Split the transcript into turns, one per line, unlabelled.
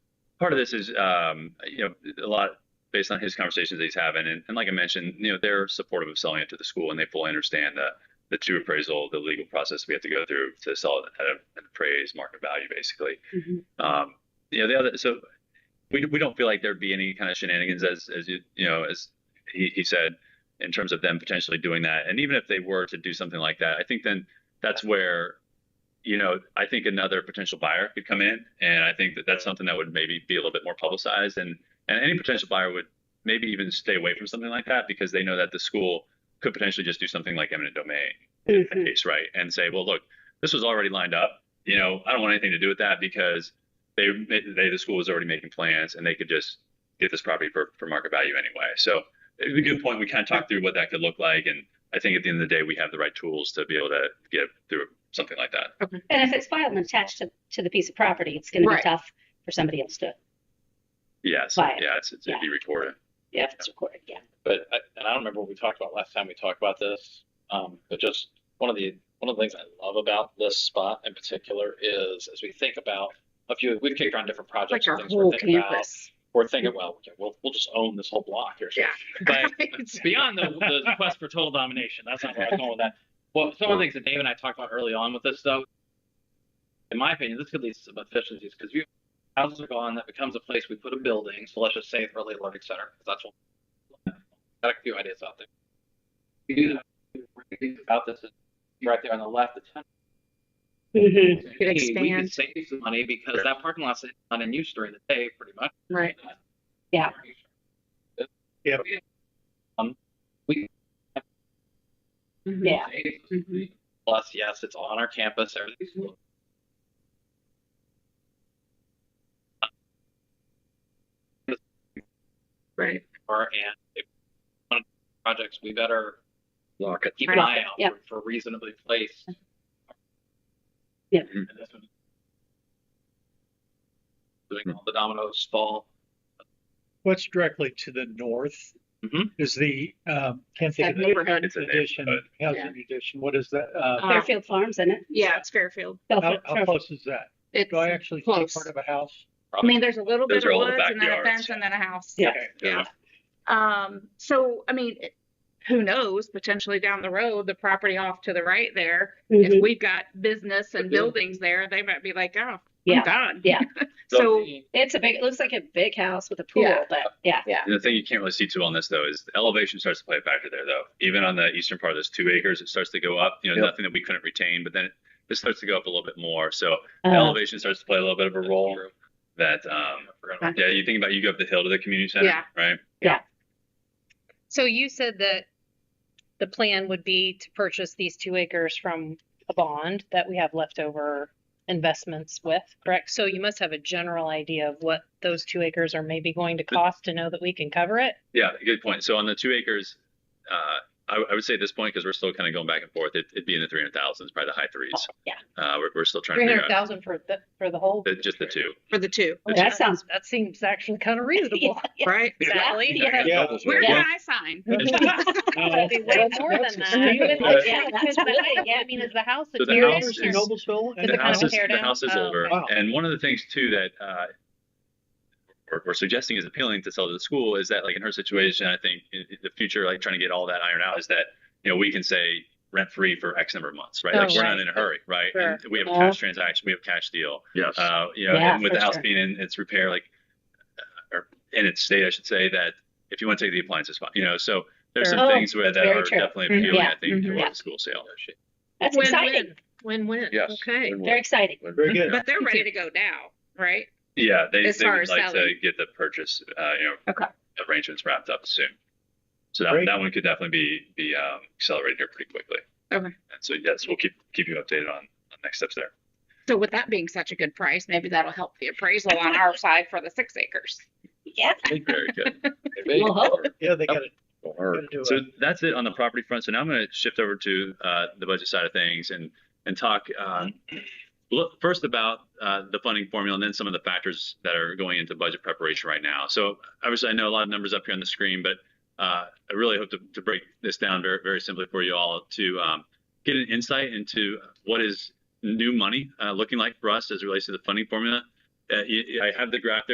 part of this is, um, you know, a lot based on his conversations that he's having. And, and like I mentioned, you know, they're supportive of selling it to the school and they fully understand the, the two appraisal, the legal process we have to go through to sell it at a- an appraised market value, basically.
Mhm.
Um, you know, the other, so we, we don't feel like there'd be any kind of shenanigans as, as you, you know, as he, he said, in terms of them potentially doing that. And even if they were to do something like that, I think then that's where, you know, I think another potential buyer could come in. And I think that that's something that would maybe be a little bit more publicized. And, and any potential buyer would maybe even stay away from something like that because they know that the school could potentially just do something like eminent domain in that
Mhm.
case, right? And say, well, look, this was already lined up. You know, I don't want anything to do with that because they, they the school was already making plans and they could just get this property for, for market value anyway. So it's a good point. We kind of talked through what that could look like. And I think at the end of the day, we have the right tools to be able to get through something like that.
And if it's filed and attached to, to the piece of property, it's gonna be
Right.
tough for somebody else to,
Yes.
Right.
Yeah. It's, it's, it'd be recorded.
yeah, if it's recorded, yeah.
but I, and I don't remember what we talked about last time we talked about this. Um, but just one of the one of the things I love about this spot in particular is as we think about a few we've kicked around different
Like
projects
our
and things
whole
we're thinking about.
campus.
We're thinking, well, okay, we'll we'll just own this whole block here.
Yeah.
But
Right.
beyond the, the quest for total domination, that's not where I'm going with that. Well, some of the things that Dave and I talked about early on with this, though, in my opinion, this could lead to some efficiencies because you houses are gone. That becomes a place we put a building. So let's just say it's early learning center because that's what. Got a few ideas out there. We do that about this is right there on the left. The tenant
Mhm.
could
We can
expand.
save some money because that parking lot's not in use during the day, pretty much.
Right.
Yeah.
Yep.
Um, we
Mhm.
Yeah, Mm-hmm.
Mhm.
Plus, yes, it's on our campus. Everything's
Right.
lower, and if one of the projects, we better
Lock it.
keep an
Right.
eye out
Yep.
for, for reasonably placed.
Yep.
And this one- Doing all the dominoes fall.
What's directly to the north?
Mm-hmm.
Mhm.
Is the, um, can't think
That
of the
neighborhood.
It's a
addition,
neighborhood.
housing addition, what is that? Uh,
Uh,
Fairfield Farms, isn't it?
Yeah, it's Fairfield.
how,
Fairfield-
how close is that?
It's
Do I actually see
close.
part of a house?
I mean, there's a little
Those
bit
are
of
all the
woods and then a
backyards,
fence
yeah.
and then a house.
Yeah.
Okay.
Yeah.
Um, so, I mean, it- who knows, potentially down the road, the property off to the right there, if
Mhm.
we've got business and buildings there, they might be like, oh, I'm
Yeah,
gone.
yeah.
So,
it's a big, it looks like a big house with a pool,
Yeah.
but yeah.
And the thing you can't really see too on this though is the elevation starts to play a factor there though. Even on the eastern part of this two acres, it starts to go up. You know,
Yep.
nothing that we couldn't retain, but then it, it starts to go up a little bit more. So the
Uh,
elevation starts to play a little bit of a
That's
role.
true.
That
Um,
um,
I forgot about
yeah, you think about you go up the hill to the community center,
Yeah.
right?
So you said that the plan would be to purchase these two acres from a bond that we have leftover investments with, correct? So you must have a general idea of what those two acres are maybe going to cost to know that we can cover it?
Yeah, good point. So on the two acres, uh, I, I would say at this point because we're still kind of going back and forth, it, it'd be in the three hundred thousands, probably the high threes.
yeah.
Uh, we're, we're still trying to
Three
figure
hundred
out
thousand for the, for the whole?
the, just the two.
for the two,
Oh,
That sounds-
That seems actually kind of reasonable.
right?
Sally,
Yeah,
yeah.
Yeah.
Where
Yeah.
can I sign?
That'd be way
That's-
more than
that's
that.
extreme.
Even
Yeah.
if- yeah, because the house- I mean, is the house
So the
a tear
house
down
is-
or-
Noblesville and
Is
the
it kind
house
of
is
a tear
the
down?
house is
Oh,
over,
okay.
Wow.
and one of the things too that uh, we're, we're suggesting is appealing to sell to the school is that like in her situation, I think in, in the future, like trying to get all that iron out is that you know we can say rent free for X number of months, right?
Oh,
like we're not
right.
in a hurry, right?
Sure.
And we have a
Yeah.
cash transaction, we have cash deal.
Yes.
Uh, you know,
Yeah,
and with
for
the house
sure.
being in its repair, like uh, or in its state, I should say that if you want to take the appliances, fine, you know, so. There's
Sure.
some
Oh,
things where
that's
that
very
are
true.
definitely
Mm-hmm.
Mhm.
appealing,
Yeah.
I think, to
Mhm.
a
Yeah.
school sale.
That's
Win-win.
exciting.
Win-win,
Yes.
okay.
Very exciting.
Very good.
But they're ready to go now, right?
Yeah, they,
As
they
far
would
as
like to
selling.
get the purchase, uh, you know,
Okay.
arrangements wrapped up soon. So that,
Great.
that one could definitely be be um, accelerated here pretty quickly.
Okay.
And so yes, we'll keep keep you updated on, on next steps there.
So with that being such a good price, maybe that'll help the appraisal on our side for the six acres.
Yeah,
Very good.
Maybe.
Well, hope.
Yeah, they got it. Gotta do
So
it.
that's it on the property front. So now I'm going to shift over to uh, the budget side of things and and talk um, look, first about uh, the funding formula and then some of the factors that are going into budget preparation right now. So obviously, I know a lot of numbers up here on the screen, but uh, I really hope to, to break this down very very simply for you all to um, get an insight into what is new money uh, looking like for us as it relates to the funding formula. Uh, you- I have the graph there.